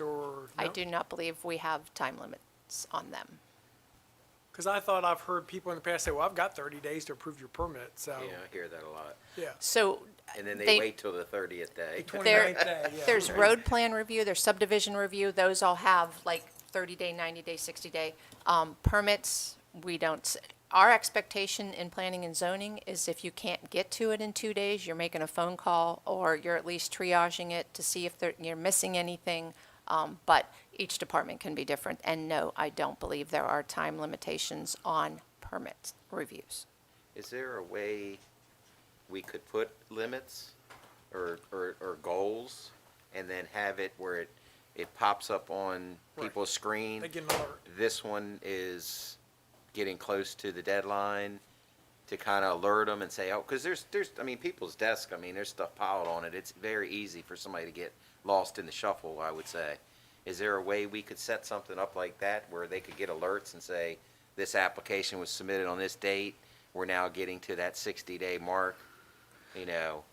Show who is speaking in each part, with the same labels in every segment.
Speaker 1: or?
Speaker 2: I do not believe we have time limits on them.
Speaker 1: Because I thought I've heard people in the past say, well, I've got 30 days to approve your permit, so,
Speaker 3: Yeah, I hear that a lot.
Speaker 1: yeah.
Speaker 2: So
Speaker 3: And then
Speaker 2: They-
Speaker 3: they wait till the thirtieth day.
Speaker 1: The
Speaker 2: there,
Speaker 1: 29th day, yeah.
Speaker 2: there's road plan review, there's subdivision review, those all have like 30-day, 90-day, 60-day. Um, Permits, we don't, s- our expectation in planning and zoning is if you can't get to it in two days, you're making a phone call, or you're at least triaging it to see if there- you're missing anything. Um, But each department can be different, and no, I don't believe there are time limitations on permit reviews.
Speaker 3: Is there a way we could put limits or, or, or goals and then have it where it, it pops up on
Speaker 1: Right.
Speaker 3: people's screen?
Speaker 1: They get an alert.
Speaker 3: This one is getting close to the deadline to kind of alert them and say, oh, because there's, there's, I mean, people's desk, I mean, there's stuff piled on it. It's very easy for somebody to get lost in the shuffle, I would say. Is there a way we could set something up like that where they could get alerts and say, this application was submitted on this date, we're now getting to that sixty day mark, you know?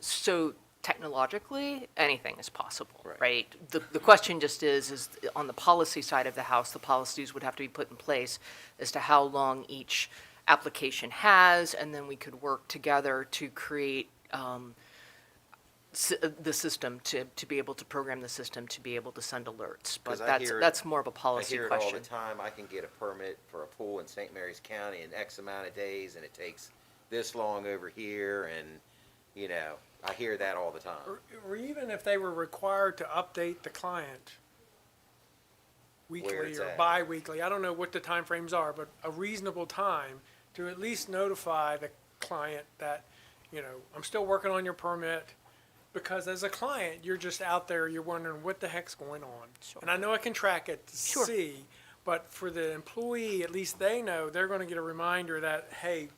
Speaker 4: so technologically, anything is possible,
Speaker 3: Right.
Speaker 4: right? The, the question just is, is on the policy side of the house, the policies would have to be put in place as to how long each application has, and then we could work together to create, um, s- the system to, to be able to program the system to be able to send alerts. But
Speaker 3: 'Cause I
Speaker 4: that's,
Speaker 3: hear it-
Speaker 4: that's more of a
Speaker 3: I
Speaker 4: policy
Speaker 3: hear it all
Speaker 4: question.
Speaker 3: the time, I can get a permit for a pool in St. Mary's County in X amount of days, and it takes this long over here, and, you know, I hear that all the time.
Speaker 1: Or- Or even if they were required to update the client weekly
Speaker 3: it's
Speaker 1: or
Speaker 3: at.
Speaker 1: bi-weekly, I don't know what the timeframes are, but a reasonable time to at least notify the client that, you know, I'm still working on your permit, because as a client, you're just out there, you're wondering what the heck's going on. And I know I can track it to
Speaker 4: Sure.
Speaker 1: see, but for the employee, at least they know, they're gonna get a reminder that, hey,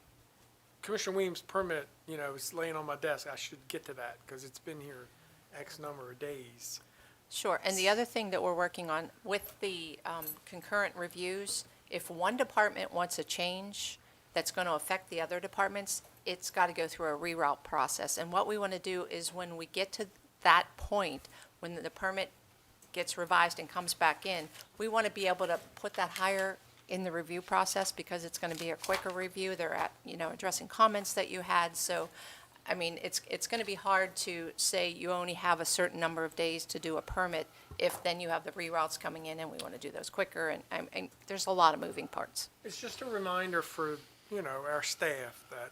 Speaker 1: Commissioner Weems' permit, you know, is laying on my desk. I should get to that because it's been here X number of days.
Speaker 2: Sure, and the other thing that we're working on with the um, concurrent reviews, if one department wants a change that's going to affect the other departments, it's got to go through a reroute process. And what we want to do is when we get to that point, when the permit gets revised and comes back in, we want to be able to put that higher in the review process because it's going to be a quicker review. They're at, you know, addressing comments that you had. So, I mean, it's, it's going to be hard to say you only have a certain number of days to do a permit if then you have the reroutes coming in and we want to do those quicker. And, and- and there's a lot of moving parts.
Speaker 1: It's just a reminder for, you know, our staff that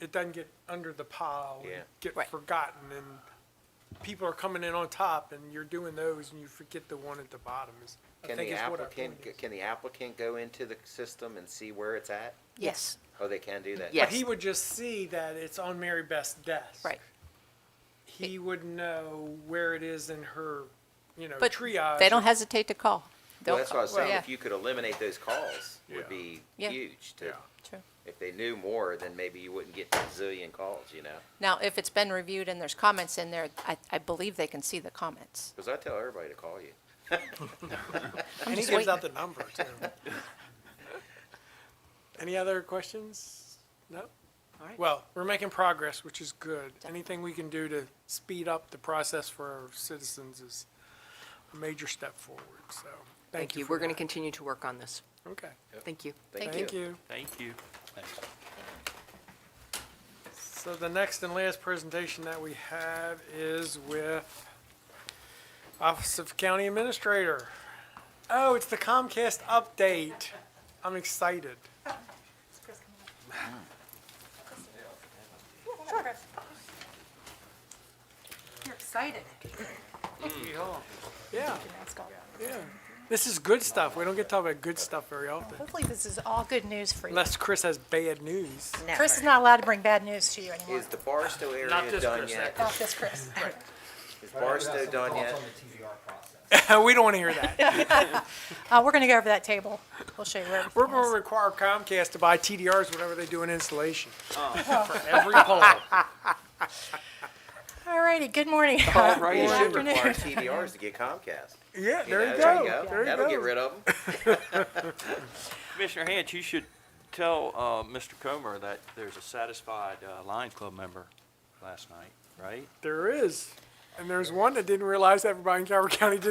Speaker 1: it doesn't get under the pile
Speaker 3: Yeah.
Speaker 1: and get
Speaker 2: Right.
Speaker 1: forgotten and people are coming in on top and you're doing those and you forget the one at the bottom is, I
Speaker 3: Can
Speaker 1: think
Speaker 3: the
Speaker 1: is what our
Speaker 3: applicant,
Speaker 1: point is.
Speaker 3: can the applicant go into the system and see where it's at?
Speaker 2: Yes.
Speaker 3: Oh, they can do that?
Speaker 1: But
Speaker 4: Yes.
Speaker 1: he would just see that it's on Mary Beth's desk.
Speaker 2: Right.
Speaker 1: He would know where it is in her, you know,
Speaker 2: But
Speaker 1: triage.
Speaker 2: they don't hesitate to call.
Speaker 3: Well,
Speaker 2: They'll
Speaker 3: that's what I was
Speaker 2: call.
Speaker 3: saying,
Speaker 2: Yeah,
Speaker 3: if you could eliminate those calls, would be
Speaker 2: Yeah.
Speaker 3: huge to,
Speaker 1: Yeah.
Speaker 2: true.
Speaker 3: if they knew more, then maybe you wouldn't get a zillion calls, you know?
Speaker 2: Now, if it's been reviewed and there's comments in there, I, I believe they can see the comments.
Speaker 3: Because I tell everybody to call you.
Speaker 1: And he
Speaker 2: just
Speaker 1: gives
Speaker 2: waiting.
Speaker 1: out the number too. Any other questions? No?
Speaker 4: All right.
Speaker 1: Well, we're making progress, which is good. Anything we can do to speed up the process for our citizens is a major step forward, so thank you
Speaker 4: We're
Speaker 1: for
Speaker 4: going to
Speaker 1: that.
Speaker 4: continue to work on this.
Speaker 1: Okay,
Speaker 4: Thank you.
Speaker 2: Thank
Speaker 1: thank you.
Speaker 5: Thank you.
Speaker 1: So the next and last presentation that we have is with Office of County Administrator. Oh, it's the Comcast update. I'm excited.
Speaker 6: Sure. You're excited.
Speaker 1: Yeah. This is good stuff. We don't get to talk about good stuff very often.
Speaker 6: Hopefully this is all good news for you.
Speaker 1: Unless Chris has bad news.
Speaker 6: Chris is not allowed to bring bad news to you anymore.
Speaker 3: Is the Barstow area done yet?
Speaker 6: Not this Chris.
Speaker 3: Is Barstow done yet?
Speaker 1: we don't want to hear that.
Speaker 6: Uh, we're gonna go over that table. We'll show you where
Speaker 1: We're going to
Speaker 6: everything is.
Speaker 1: require Comcast to buy TDRs whenever they do an installation. For every pole.
Speaker 6: All righty, good morning.
Speaker 3: You
Speaker 6: Good
Speaker 3: should require
Speaker 6: afternoon.
Speaker 3: TDRs to get Comcast.
Speaker 1: Yeah,
Speaker 3: You
Speaker 1: there
Speaker 3: know,
Speaker 1: you go. There you
Speaker 3: That'll
Speaker 1: go.
Speaker 3: get rid of them.
Speaker 5: Commissioner Hance, you should tell uh, Mr. Comer that there's a satisfied uh, Lions Club member last night, right?
Speaker 1: There is. And there's one that didn't realize everybody in Calvert County did